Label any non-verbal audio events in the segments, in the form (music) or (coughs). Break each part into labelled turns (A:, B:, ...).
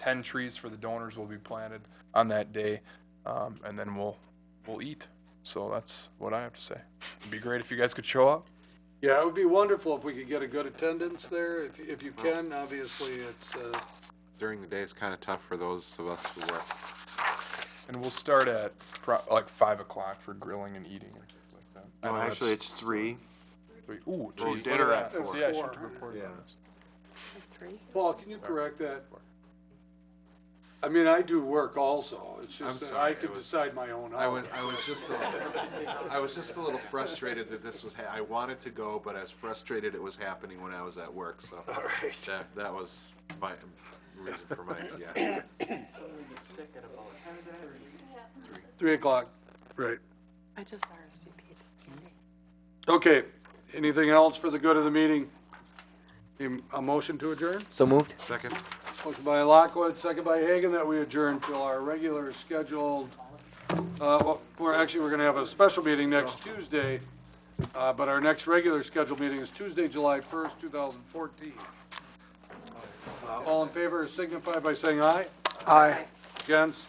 A: ten trees for the donors will be planted on that day, um, and then we'll we'll eat. So that's what I have to say. It'd be great if you guys could show up.
B: Yeah, it would be wonderful if we could get a good attendance there, if, if you can, obviously, it's, uh,
C: During the day is kind of tough for those of us who work.
A: And we'll start at pro- like five o'clock for grilling and eating and things like that. I
D: No,
B: Oh,
A: know that's
D: Oh, actually, it's three.
A: sweet. Ooh, geez,
D: well,
A: look
D: dinner
A: that.
D: at That's four.
A: Yeah, I should
B: four.
A: report
D: Yeah.
A: on this.
E: Three.
B: Paul, can you correct that? I mean, I do work also, it's
C: I'm
B: just that
C: sorry,
B: I
C: it
B: could
C: was-
B: decide my own
C: I was,
B: hours.
C: I was just, a little- I was just a little frustrated that this was, ha- I wanted to go, but I was frustrated it was happening when I was at work, so.
B: All right.
C: That, that was my, reason for my,
B: (coughs)
C: yeah.
B: Three o'clock, right.
E: I just RSVP'd.
B: Okay, anything else for the good of the meeting? Em- A motion to adjourn?
F: So moved.
C: Second?
B: Motion by Lockwood, second by Hagan, that we adjourn till our regular scheduled, uh, well, we're actually, we're gonna have a special meeting next Tuesday, uh, but our next regular scheduled meeting is Tuesday, July first, two thousand fourteen. Uh, all in favor signify by saying aye. Aye. Against,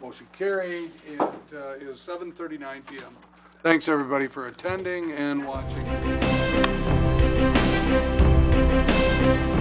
B: motion carried, it, uh, is seven thirty-nine PM. Thanks, everybody, for attending and watching.